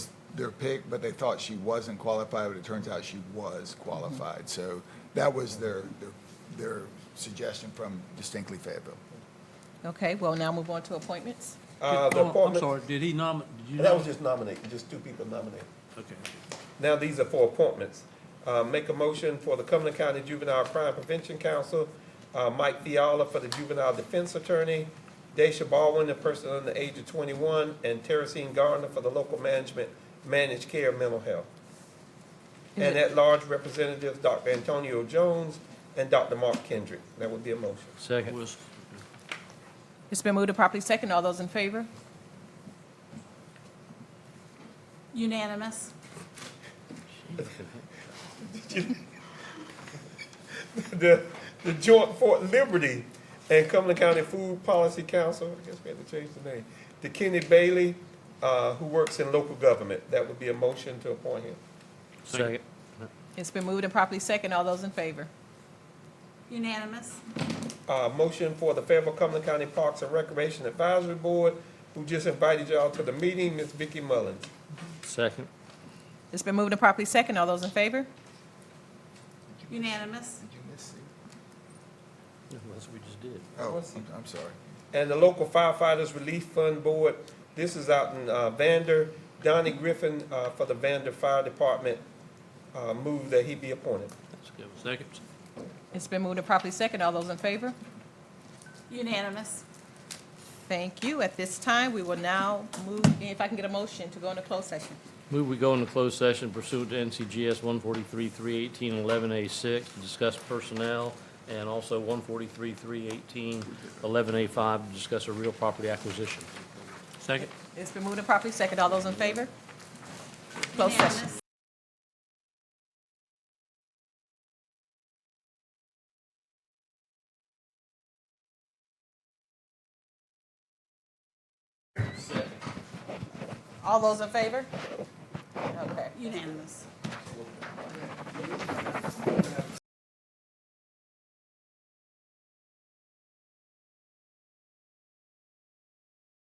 their pick, but they thought she wasn't qualified, but it turns out she was qualified. So that was their, their, their suggestion from distinctly Fayetteville. Okay, well, now move on to appointments. Uh, Did- the oh, I'm appointment, sorry, did he nominate? that was just nominated, just two people nominated. Okay. Now, these are for appointments. Uh, make a motion for the Cumberland County Juvenile Crime Prevention Council, uh, Mike Fiala for the Juvenile Defense Attorney, Daisha Baldwin, the person under the age of twenty-one, and Teresine Gardner for the Local Management, Managed Care Mental Health. And at-large representatives, Dr. Antonio Jones and Dr. Mark Kendrick. That would be a motion. Second. Was, It's been moved and properly second. All those in favor? Unanimous. the, the Joint Fort Liberty and Cumberland County Food Policy Council, I guess we had to change the name, to Kenny Bailey, uh, who works in local government. That would be a motion to appoint him. Second. It's been moved and properly second. All those in favor? Unanimous. Uh, motion for the Fayetteville Cumberland County Parks and Recreation Advisory Board, who just invited y'all to the meeting, Ms. Vicky Mullins. Second. It's been moved and properly second. All those in favor? Unanimous. Did you miss C? That's what we just did. Oh, I'm- I'm sorry. And the local firefighters relief fund board, this is out in, uh, Vander. Donnie Griffin, uh, for the Vander Fire Department, uh, move that he be appointed. let's go, second. It's been moved and properly second. All those in favor? Unanimous. Thank you. At this time, we will now move, if I can get a motion to go into closed session. Move we go into closed session pursuant to NCGS 143 318 11 a 6 to discuss personnel, and also 143 318 11 a 5 to discuss a real property acquisition. Second. It's been moved and properly second. All those in favor? Closed session. Unanimous. All those in favor? Okay. Unanimous.